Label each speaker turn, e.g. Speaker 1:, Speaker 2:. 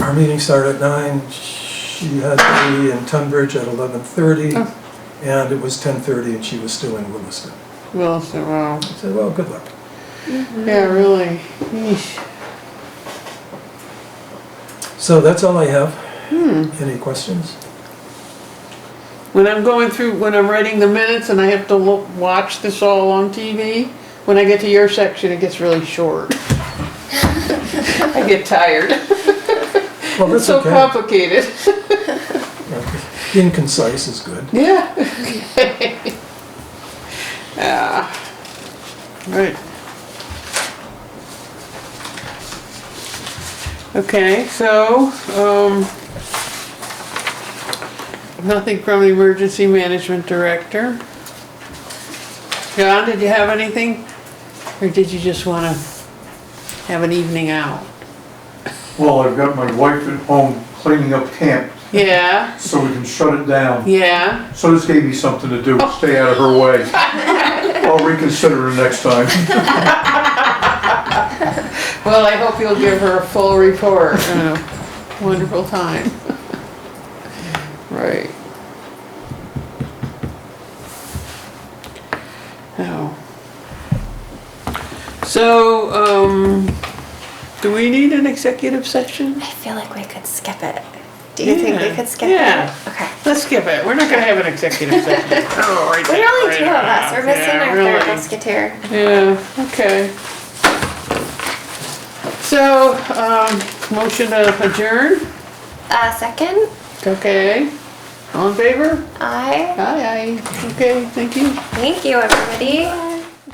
Speaker 1: Our meeting started at nine, she had to be in Tunbridge at eleven thirty,
Speaker 2: Oh.
Speaker 1: and it was ten thirty and she was still in Williston.
Speaker 2: Well, so, wow.
Speaker 1: I said, well, good luck.
Speaker 2: Yeah, really. Yeesh.
Speaker 1: So that's all I have.
Speaker 2: Hmm.
Speaker 1: Any questions?
Speaker 2: When I'm going through, when I'm writing the minutes and I have to look, watch this all on TV, when I get to your section, it gets really short. I get tired.
Speaker 1: Well,
Speaker 2: It's
Speaker 1: that's
Speaker 2: so
Speaker 1: okay.
Speaker 2: complicated.
Speaker 1: Being concise is good.
Speaker 2: Yeah. Yeah. Right. Okay, so, um, nothing from the emergency management director. John, did you have anything? Or did you just wanna have an evening out?
Speaker 3: Well, I've got my wife at home cleaning up camp,
Speaker 2: Yeah,
Speaker 3: so we can shut it down.
Speaker 2: yeah.
Speaker 3: So this gave me something to do, stay out of her way. I'll reconsider it next time.
Speaker 2: Well, I hope you'll give her a full report and a wonderful time. Right. Oh. So, um, do we need an executive session?
Speaker 4: I feel like we could skip it. Do you think
Speaker 2: Yeah,
Speaker 4: we could skip
Speaker 2: yeah.
Speaker 4: it? Okay.
Speaker 2: Let's skip it. We're not gonna have an executive session. Oh, right
Speaker 4: We're
Speaker 2: there,
Speaker 4: only
Speaker 2: right
Speaker 4: two of
Speaker 2: now.
Speaker 4: us. We're missing
Speaker 2: Yeah,
Speaker 4: our
Speaker 2: really.
Speaker 4: third musketeer.
Speaker 2: Yeah, okay. So, um, motion to adjourn?
Speaker 4: Uh, second,
Speaker 2: Okay, all in favor?
Speaker 4: I
Speaker 2: Aye, aye. Okay, thank you.
Speaker 4: thank you, everybody.